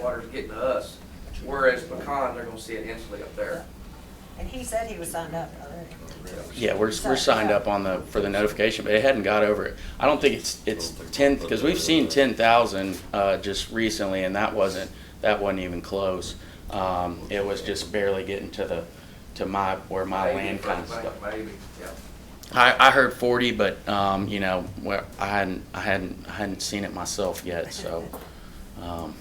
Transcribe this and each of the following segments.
water's getting to us, whereas pecan, they're gonna see it instantly up there. And he said he was signed up already. Yeah, we're, we're signed up on the, for the notification, but it hadn't got over it. I don't think it's, it's ten, because we've seen ten thousand, uh, just recently, and that wasn't, that wasn't even close. Um, it was just barely getting to the, to my, where my land kind of stuff. Maybe, yeah. I, I heard forty, but, um, you know, where, I hadn't, I hadn't, I hadn't seen it myself yet, so, um,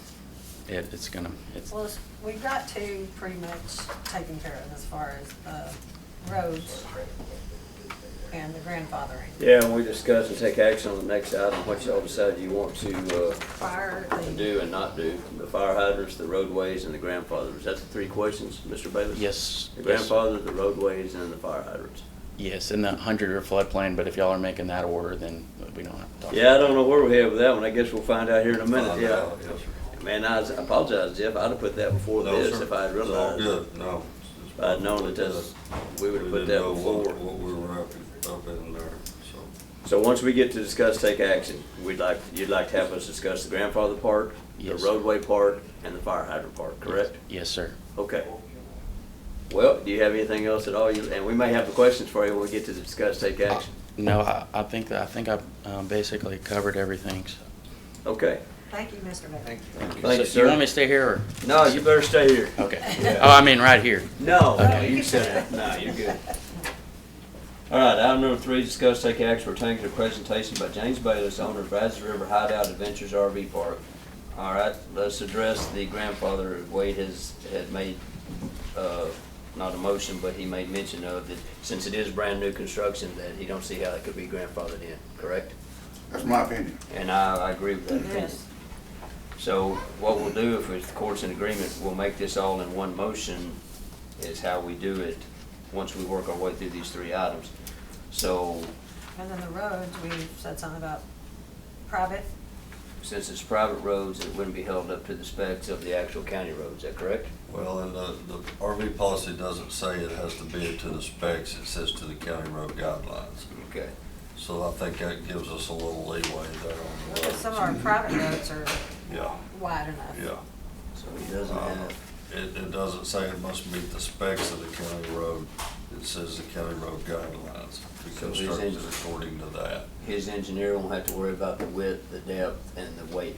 it, it's gonna, it's, Well, it's- we've got two pretty much taken care of as far as uh, roads and the grandfathering. Yeah, and we discuss and take action on the next item, what y'all decide you want to, uh, Fire, the, do and not do. The fire hydrants, the roadways, and the grandfathers. That's the three questions, Mr. Bayless? yes. The yes. grandfather, the roadways, and the fire hydrants. Yes, in the hundred-year floodplain, but if y'all are making that order, then we don't have to talk. Yeah, I don't know where we're headed with that one. I guess we'll find out here in a minute, Find yeah. out, yes, sir. Man, I I apologize, Jeff. I'd have put that before No, this sir. if I'd It's all realized. good, no. If I'd known that that's, we would have We put didn't that know what- before. What we were up, in- up in there, so. So once we get to discuss, take action, we'd like, you'd like to have us discuss the grandfather part, the Yes. roadway part, and the fire hydrant part, correct? Yes, sir. Okay. Well, do you have anything else at all? You- And we may have the questions for you when we get to discuss, take action. No, I, I think, I think I've um, basically covered everything, so. Okay. thank you, Mr. Bailey. Thank you, So You want me sir. to stay here No, you better stay here. or? Okay. Yeah. Oh, I mean, right here. No, no, Okay. you sit down. No, you're good. All right, item number three, discuss take action pertaining to a presentation by James Bayless, owner of Brazos River Hideout Adventures RV Park. All right, let's address the grandfather Wade has, had made, uh, not a motion, but he made mention of that since it is brand new construction, that he don't see how it could be grandfathered in, correct? That's my opinion. And I, I agree with that opinion. Yes. So what we'll do, if the court's in agreement, we'll make this all in one motion, is how we do it, once we work our way through these three items. So, And then the roads, we said something about private, since it's private roads, it wouldn't be held up to the specs of the actual county roads, is that correct? Well, and the, the RV policy doesn't say it has to be to the specs, it says to the county road guidelines. Okay. So I think that gives us a little leeway there on the because roads. some of our private roads are Yeah, wide enough. yeah. So he doesn't Um, have, It, it doesn't say it must meet the specs of the county road, it says the county road guidelines, to be So he's constructed in- according to that. his engineer won't have to worry about the width, the depth, and the weight.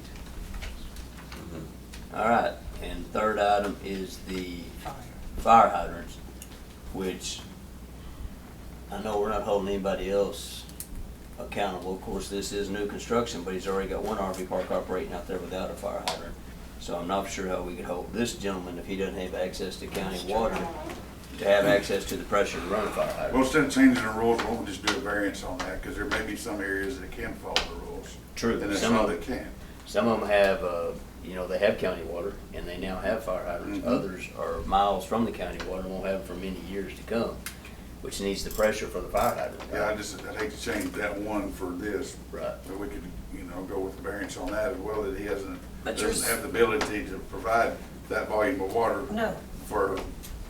All right, and third item is the fire hydrants, which I know we're not holding anybody else accountable. Of course, this is new construction, but he's already got one RV park operating out there without a fire hydrant. So I'm not sure how we could hold this gentleman, if he doesn't have access to county water, to have access to the pressure to run a fire hydrant. Well, instead of changing the rules, why don't we just do a variance on that? Because there may be some areas that can follow the rules, True. and there's Some some of, that can't. some of them have, uh, you know, they have county water and they now have fire hydrants. Mhm. Others are miles from the county water and won't have them for many years to come, which needs the pressure for the fire hydrant. Yeah, I right? just, I'd hate to change that one for this, Right. but we could, you know, go with the variance on that as well, that he hasn't, But you're doesn't s- have the ability to provide that volume of water No, for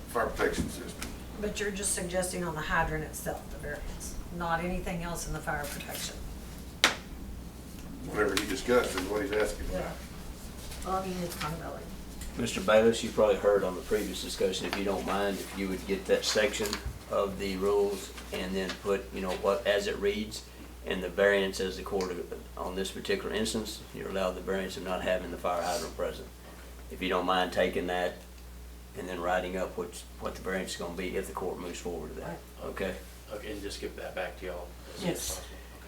fire protection system. but you're just suggesting on the hydrant itself, the variance, not anything else in the fire protection. Whatever he discussed is what he's asking Yeah. about. Well, I mean, it's kind of like, Mr. Bayless, you probably heard on the previous discussion, if you don't mind, if you would get that section of the rules and then put, you know, what, as it reads, and the variance as the court, on this particular instance, you're allowed the variance of not having the fire hydrant present. If you don't mind taking that and then writing up what's, what the variance is gonna be if the court moves forward to that, okay? Okay, and just give that back to y'all. as soon as Yes. possible.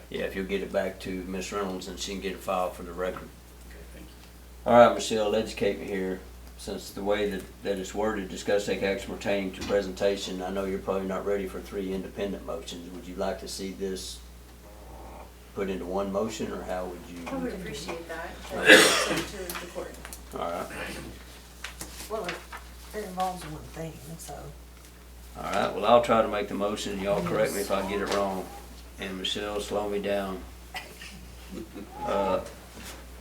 Okay, Yeah, if you'll get it back to Ms. Reynolds and she can get it filed for the record. okay, thank you. All right, Michelle, educate me here, since the way that, that it's worded, discuss take action pertaining to presentation, I know you're probably not ready for three independent motions, would you like to see this put into one motion, or how would you? I would appreciate that, but it's up to the court. All right, well, it- it involves one thing, so. all right, well, I'll try to make the motion, and y'all correct me if I get it wrong, and Michelle, slow me down. Uh,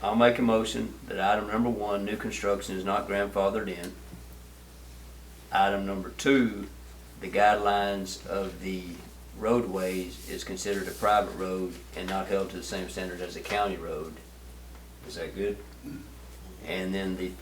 I'll make a motion that item number one, new construction is not grandfathered in. Item number two, the guidelines of the roadways is considered a private road and not held to the same standard as a county road. Is that good? And then the